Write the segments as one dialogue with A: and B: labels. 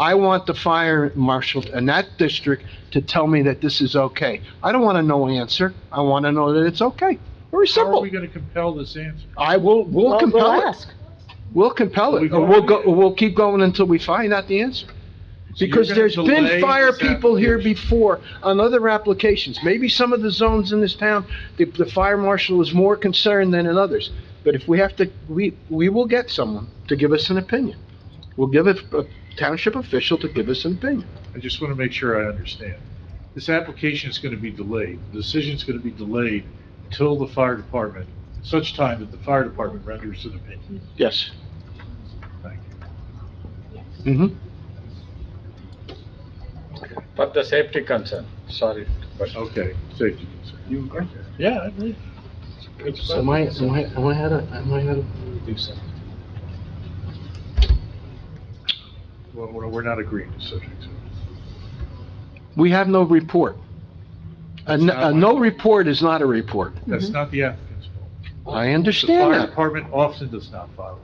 A: I want the fire marshal in that district to tell me that this is okay. I don't want to know answer. I want to know that it's okay. Very
B: How are
A: simple.
B: we gonna compel this answer?
A: I will, we'll
C: Well, we'll
A: compel it.
C: ask.
A: We'll compel
B: We
A: it.
B: go-
A: Or We'll go, we'll keep going until we find out the answer.
B: So you're
A: Because
B: gonna
A: there's
B: delay
A: been fire
B: this
A: people here
B: application.
A: before on other applications. Maybe some of the zones in this town, the, the fire marshal is more concerned than in others. But if we have to, we, we will get someone to give us an opinion. We'll give a a township official to give us an opinion.
B: I just wanna make sure I understand. This application is gonna be delayed, the decision's gonna be delayed until the fire department, such time that the fire department renders an opinion.
A: Yes.
B: Thank you.
A: Mm-hmm.
D: for the safety concern, sorry. but-
B: Okay, safety concern. You agree? Yeah, I agree.
E: So am I, am I, am I out of, am I out of? Do so.
B: Well, we're we're not agreeing to subject to
A: Mm-hmm.
B: it.
A: We have no report. A, n- a no report is not a report.
B: That's not the applicant's fault.
A: I
B: The
A: understand
B: fire
A: that.
B: department often does not follow.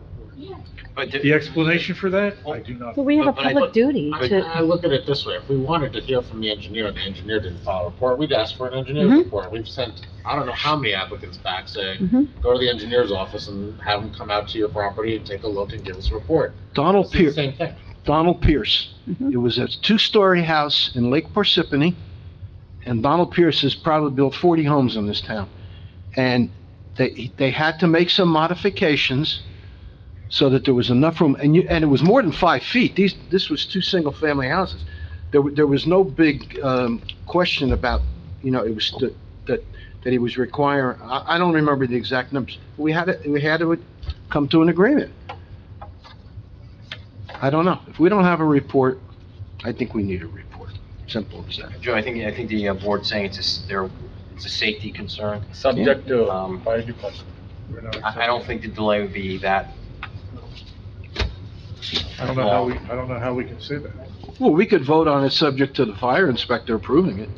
E: But,
B: The
E: the-
B: explanation for that, I do not.
C: But we have a
E: But- but I-
C: public duty
E: I,
C: to,
E: I look at it this way, if we wanted to hear from the engineer, and the engineer didn't file a report, we'd ask for an engineer's
A: Mm-hmm.
C: Mhm.
E: report. We've sent, I don't know how many applicants back saying,
C: Mhm.
A: Mm-hmm.
E: go to the engineer's office and have him come out to your property and take a look and give us a report.
A: Donald
E: It's the
A: Pierce,
E: same thing.
A: Donald Pierce.
C: Mhm.
A: It was a two-story house in Lake Parsippany, and Donald Pierce has probably built 40 homes in this town. And they, they had to make some modifications so that there was enough room, and you, and it was more than five feet. These, this was two single-family houses. There, wa- there was no big, um, question about, you know, it was that, that, that he was requiring, I, I don't remember the exact numbers. We had to, we had to come to an agreement. I don't know. If we don't have a report, I think we need a report. Simple as that.
F: Joe, I think, I think the uh, board's saying it's a, s- they're, it's a safety concern.
D: Subject to
F: Um,
D: fire department.
B: We're not
F: I, I don't think the delay would be that.
B: I don't know how we, I don't know how we can say that.
A: Well, we could vote on it subject to the fire inspector approving it.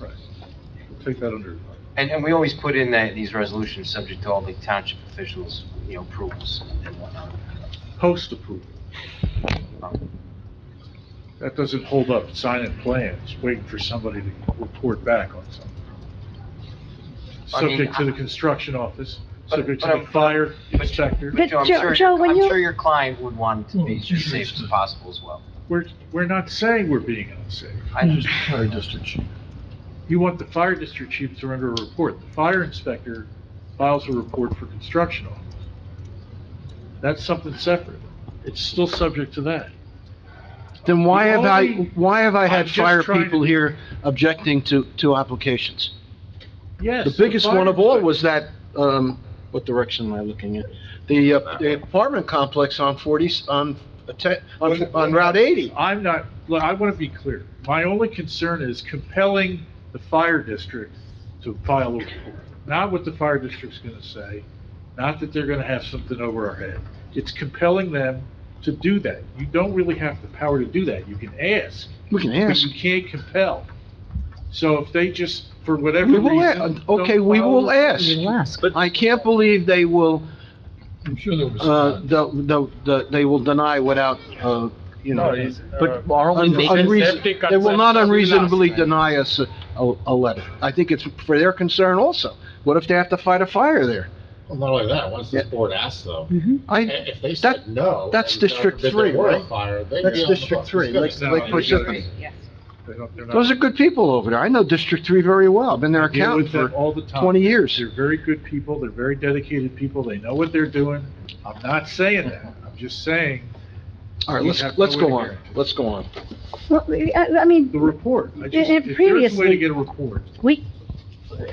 B: Right. We'll Take that under.
F: And, and we always put in that, these resolutions, subject to all the township officials, you know, approvals and whatnot. Um,
B: Post approval. That doesn't hold up signing plans, waiting for somebody to report back on something.
F: I mean,
B: Subject to the
F: I-
B: construction office,
F: But-
B: subject
F: but
B: to
F: I'm-
B: the fire inspector.
C: But
F: I'm
C: Joe-
F: sure-
C: Joe, when you-
F: I'm sure your client would want to be
B: Hmm.
F: as safe as possible as well.
B: We're, we're not saying we're being unsafe.
F: I understand.
B: You want the fire district chief to render a report. The fire inspector files a report for construction office. That's something separate. It's still subject to that.
A: Then why have I, why have I
B: I'm
A: had
B: just
A: fire
B: trying to-
A: people here objecting to, to applications?
B: Yes.
A: The biggest
B: fire
A: one of all
B: inspector-
A: was that, um, what direction am I looking at? The, uh, the apartment complex on forty, on, a te- on, on Route eighty.
B: I'm not, look, I want to be clear. My only concern is compelling the fire district to file a report. Not what the fire district's going to say, not that they're going to have something over our head. It's compelling them to do that. You don't really have the power to do that. You can ask,
A: We can
B: but
A: ask.
B: you can't compel. So if they just, for whatever
A: We will,
B: reason.
A: a-
B: don't
A: okay, we
B: file a
A: will
B: report-
A: ask.
C: you'll ask.
A: I can't believe they will,
G: I'm sure there was.
A: uh, the, the, the, they will deny without, uh, you know.
D: No, it's, uh,
A: But are
D: we-
A: unreason,
D: Safety
A: they will not
D: concerns.
A: unreasonably deny us a, a a letter. I think it's for their concern also. What if they have to fight a fire there?
E: Well, Not only that, once this
A: Yeah.
E: board asks though,
C: Mhm.
A: I,
E: i- if they
A: that-
E: said no.
A: that's
E: and God
A: District
E: forbid there
A: Three,
E: were a
A: right?
E: fire, they'd
A: That's
E: be on the
A: District
E: hook.
A: Three,
E: It's gonna
A: like-
E: stop.
A: like
E: You
A: Parsippany.
E: gotta-
B: They don't- they're not-
A: those are good people over there. I know District Three very well. I've been their
B: I deal
A: accountant
B: with
A: for
B: them all the time.
A: 20 years.
B: They're very good people, they're very dedicated people, they know what they're doing. I'm not saying that, I'm just saying
A: All right,
B: You
A: let's,
B: have no
A: let's
B: way to
A: go on,
B: guarantee.
A: let's go on.
C: Well, I I
B: the
C: mean,
B: report. I just-
C: And- and
B: if there's a way to
C: previously-
B: get a report.
C: we,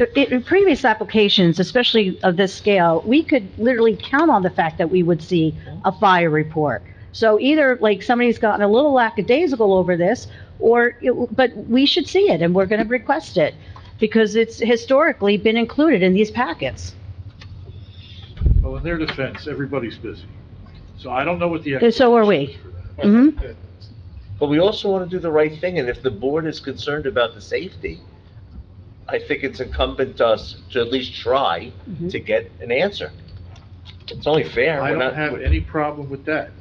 C: i- in previous applications, especially of this scale, we could literally count on the fact that we would see a fire report. So either, like, somebody's gotten a little lackadaisical over this, or, it- but we should see it, and we're gonna request it, because it's historically been included in these packets.
B: Well, in their defense, everybody's busy. So I don't know what the.
C: And so are we.
B: expectation is for that.
C: hmm
H: But we also want to do the right thing, and if the board is concerned about the safety, I think it's incumbent to us to at least try to get an answer. It's only fair.
B: I
H: We're
B: don't
H: not-
B: have
H: we're-
C: Mm.
B: any problem with that.